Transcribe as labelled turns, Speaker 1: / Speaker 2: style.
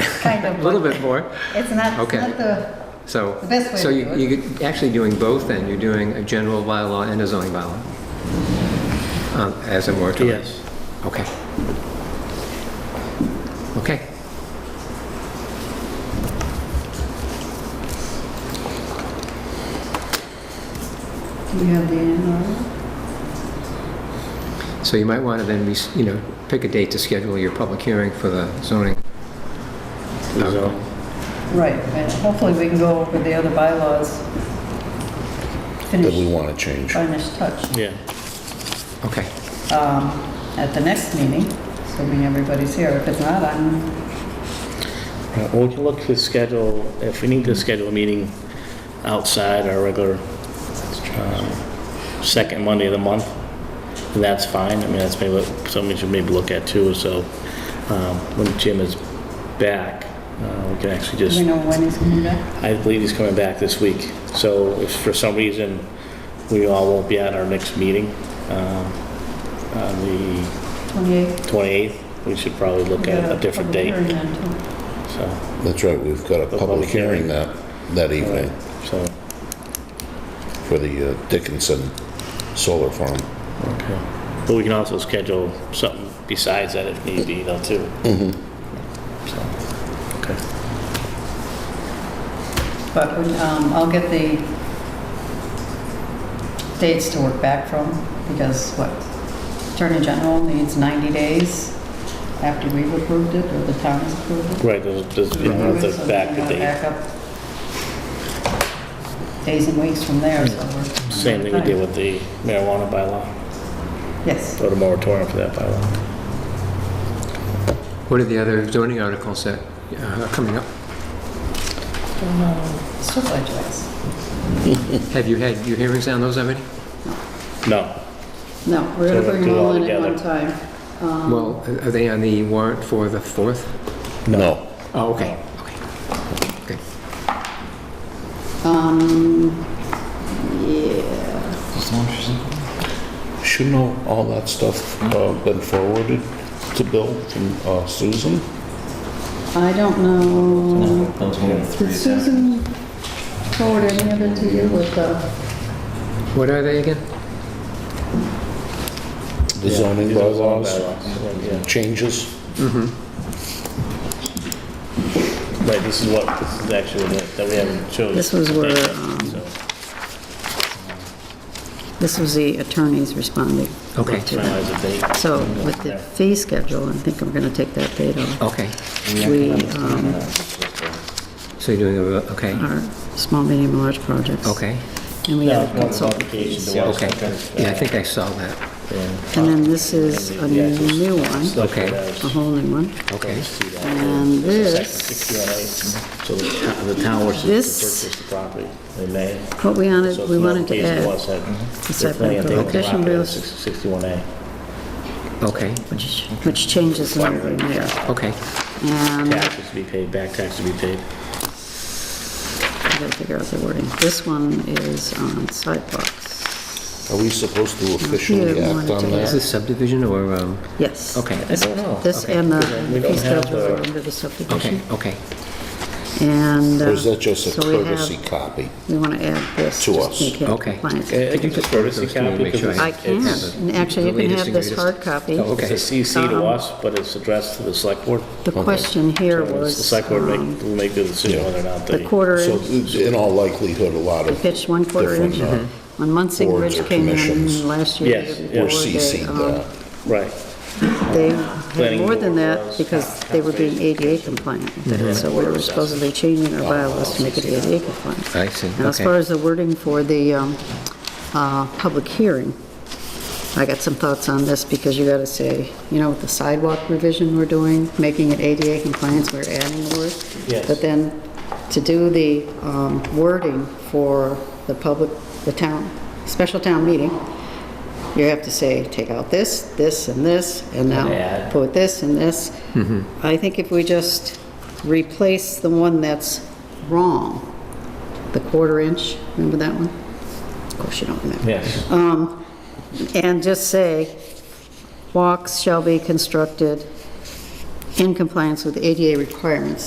Speaker 1: kind
Speaker 2: a
Speaker 1: of.
Speaker 2: little bit more.
Speaker 1: It's not, it's
Speaker 2: Okay.
Speaker 1: not the,
Speaker 2: So,
Speaker 1: The best way
Speaker 2: so
Speaker 1: to
Speaker 2: you-
Speaker 1: do it.
Speaker 2: you're actually doing both then, you're doing a general bylaw and a zoning bylaw um, as a moratorium?
Speaker 3: Yes.
Speaker 2: Okay. Okay.
Speaker 1: do you have the annual?
Speaker 2: So you might want to then, res- you know, pick a date to schedule your public hearing for the zoning.
Speaker 3: So,
Speaker 1: Right, and hopefully we can go over the other bylaws.
Speaker 4: that we
Speaker 1: Finish,
Speaker 4: want to change.
Speaker 1: finish touch
Speaker 3: yeah.
Speaker 2: Okay.
Speaker 1: um, at the next meeting, assuming everybody's here. If it's not, I'm,
Speaker 3: Uh, We can look to schedule, if we need to schedule a meeting outside our regular um, second Monday of the month, then that's fine. I mean, that's maybe what- something we should maybe look at too, so um, when Jim is back, uh, we can actually
Speaker 1: do
Speaker 3: just
Speaker 1: we know when he's coming back?
Speaker 3: I believe he's coming back this week. So if for some reason we all won't be at our next meeting um, on the
Speaker 1: 28th?
Speaker 3: 28th, we should probably look at a different
Speaker 1: Public
Speaker 3: date.
Speaker 1: hearing then, too.
Speaker 3: So,
Speaker 4: That's right, we've got a
Speaker 3: The
Speaker 4: public
Speaker 3: public
Speaker 4: hearing
Speaker 3: hearing.
Speaker 4: that, that evening
Speaker 3: so,
Speaker 4: for the uh, Dickinson Solar Farm.
Speaker 3: okay. But we can also schedule something besides that if need be though too. Mm-hmm. Okay.
Speaker 1: But we- um, I'll get the dates to work back from, because what, Attorney General needs 90 days after we've approved it, or the town has approved it.
Speaker 3: Right, there's, there's, you know, the
Speaker 1: So we
Speaker 3: back
Speaker 1: gotta
Speaker 3: of the,
Speaker 1: back up Days and weeks from there, so we're...
Speaker 3: same thing we did with the marijuana bylaw,
Speaker 1: Yes,
Speaker 3: or the moratorium for that bylaw.
Speaker 2: What are the other zoning articles that uh, are coming up?
Speaker 1: so glad you asked.
Speaker 2: Have you had your hearings on those already?
Speaker 3: No,
Speaker 1: No, we're gonna
Speaker 3: So
Speaker 1: bring
Speaker 3: do
Speaker 1: them
Speaker 3: it
Speaker 1: all
Speaker 3: all
Speaker 1: in at one time.
Speaker 3: together.
Speaker 1: Um,
Speaker 2: Well, are they on the warrant for the 4th?
Speaker 4: No.
Speaker 2: Oh, okay, okay. Okay.
Speaker 1: Um, yeah,
Speaker 4: Shouldn't all- all that stuff uh, been forwarded to Bill from uh, Susan?
Speaker 1: I don't know...
Speaker 5: Those were the three
Speaker 1: Did Susan forward any of it to you with the,
Speaker 2: What are they again?
Speaker 4: The zoning
Speaker 3: These are all
Speaker 4: bylaws,
Speaker 3: bylaws, yeah.
Speaker 4: changes?
Speaker 3: Right, this is what, this is actually what, that we haven't chosen.
Speaker 6: This was where, um,
Speaker 3: So,
Speaker 6: This was the attorneys responding.
Speaker 2: Okay.
Speaker 6: to that.
Speaker 3: Finalize the date.
Speaker 6: So with the fee schedule, I think I'm going to take that date off.
Speaker 2: Okay,
Speaker 6: We um,
Speaker 2: so you're doing, a okay,
Speaker 6: are small, medium, and large projects.
Speaker 2: okay,
Speaker 6: And we
Speaker 3: Yeah,
Speaker 6: have
Speaker 3: it's more of a
Speaker 6: consultant
Speaker 3: modification
Speaker 6: fees.
Speaker 3: to what-
Speaker 2: okay. Yeah, I think I saw that.
Speaker 3: Yeah.
Speaker 6: And then this is a
Speaker 3: The actual
Speaker 6: new one,
Speaker 3: stuff
Speaker 2: Okay.
Speaker 3: that
Speaker 6: a
Speaker 3: was-
Speaker 6: whole new one.
Speaker 2: Okay,
Speaker 3: see that.
Speaker 6: And
Speaker 3: It's a
Speaker 6: this,
Speaker 3: section 60 on it. So the town- the town wishes to
Speaker 6: This-
Speaker 3: purchase the property, they may.
Speaker 6: what we
Speaker 3: So
Speaker 6: wanted,
Speaker 3: it's
Speaker 6: we
Speaker 3: a
Speaker 6: wanted to
Speaker 3: modification
Speaker 6: add,
Speaker 3: what's that-
Speaker 6: the
Speaker 3: they're
Speaker 6: site
Speaker 3: planning
Speaker 6: plan
Speaker 3: on taking the
Speaker 6: prohibition
Speaker 3: property,
Speaker 6: bills,
Speaker 3: 60 61A.
Speaker 2: okay,
Speaker 6: which which changes the numbering there.
Speaker 2: okay.
Speaker 6: And
Speaker 3: Taxes to be paid, back taxes to be paid.
Speaker 6: I gotta figure out the wording. This one is on sidewalks.
Speaker 4: Are we supposed to officially
Speaker 6: Yeah, we wanted
Speaker 4: act
Speaker 6: to
Speaker 4: on
Speaker 2: Is
Speaker 4: that?
Speaker 6: add-
Speaker 2: this subdivision or, um,
Speaker 6: Yes.
Speaker 2: okay,
Speaker 3: I don't know.
Speaker 6: This
Speaker 2: Okay.
Speaker 6: and the
Speaker 3: We don't
Speaker 6: fee
Speaker 3: have
Speaker 6: schedule are
Speaker 3: the-
Speaker 6: under the
Speaker 2: okay,
Speaker 6: subdivision.
Speaker 2: okay.
Speaker 6: And.
Speaker 4: Or is
Speaker 6: uh,
Speaker 4: that just a
Speaker 6: so we have-
Speaker 4: courtesy copy?
Speaker 6: We want to add this.
Speaker 4: To
Speaker 6: just
Speaker 4: us.
Speaker 6: make it
Speaker 2: Okay.
Speaker 6: compliant.
Speaker 3: I I
Speaker 2: Could you
Speaker 3: can
Speaker 2: just
Speaker 3: just
Speaker 2: go
Speaker 3: go
Speaker 2: to
Speaker 3: to
Speaker 2: those
Speaker 3: the
Speaker 2: two and
Speaker 3: copy
Speaker 2: make sure
Speaker 3: because
Speaker 2: I-
Speaker 6: I
Speaker 3: it's-
Speaker 6: can,
Speaker 3: it's
Speaker 6: and actually, you
Speaker 2: The
Speaker 6: can
Speaker 2: latest
Speaker 6: have
Speaker 2: and
Speaker 6: this
Speaker 2: greatest.
Speaker 6: hard copy.
Speaker 2: Oh, okay.
Speaker 3: it's a CC to
Speaker 6: Um,
Speaker 3: us, but it's addressed to the select board.
Speaker 6: The question here
Speaker 3: So
Speaker 6: was.
Speaker 3: The select board
Speaker 6: um,
Speaker 3: make, will make the decision
Speaker 4: Yeah.
Speaker 3: whether or not
Speaker 6: The
Speaker 3: they.
Speaker 6: quarter
Speaker 4: So
Speaker 6: inch,
Speaker 4: in all likelihood, a lot
Speaker 6: the
Speaker 4: of,
Speaker 6: pitch one quarter
Speaker 4: different,
Speaker 6: inch.
Speaker 4: uh,
Speaker 6: When Munson
Speaker 4: boards
Speaker 6: Ridge
Speaker 4: or
Speaker 6: came
Speaker 4: commissions.
Speaker 6: in last year.
Speaker 3: Mm-hmm. Yes,
Speaker 6: they-
Speaker 3: yeah.
Speaker 4: or
Speaker 3: Or
Speaker 4: CC'd
Speaker 6: um,
Speaker 4: that.
Speaker 3: Right.
Speaker 6: They had
Speaker 3: Planning
Speaker 6: more than
Speaker 3: board
Speaker 6: that
Speaker 3: was
Speaker 6: because they were being ADA compliant. So we were supposedly changing our bylaws to make it ADA compliant.
Speaker 2: I see,
Speaker 6: Now, as far
Speaker 2: okay.
Speaker 6: as the wording for the um, uh, public hearing, I got some thoughts on this because you got to say, you know, with the sidewalk revision we're doing, making it ADA compliance, we're adding the word.
Speaker 3: Yes.
Speaker 6: But then to do the um, wording for the public, the town, special town meeting, you have to say, take out this, this, and this, and now
Speaker 3: add.
Speaker 6: put this and this. I think if we just replace the one that's wrong, the quarter inch, remember that one? Of course you don't remember.
Speaker 3: Yes.
Speaker 6: Um, And just say, walks shall be constructed in compliance with ADA requirements.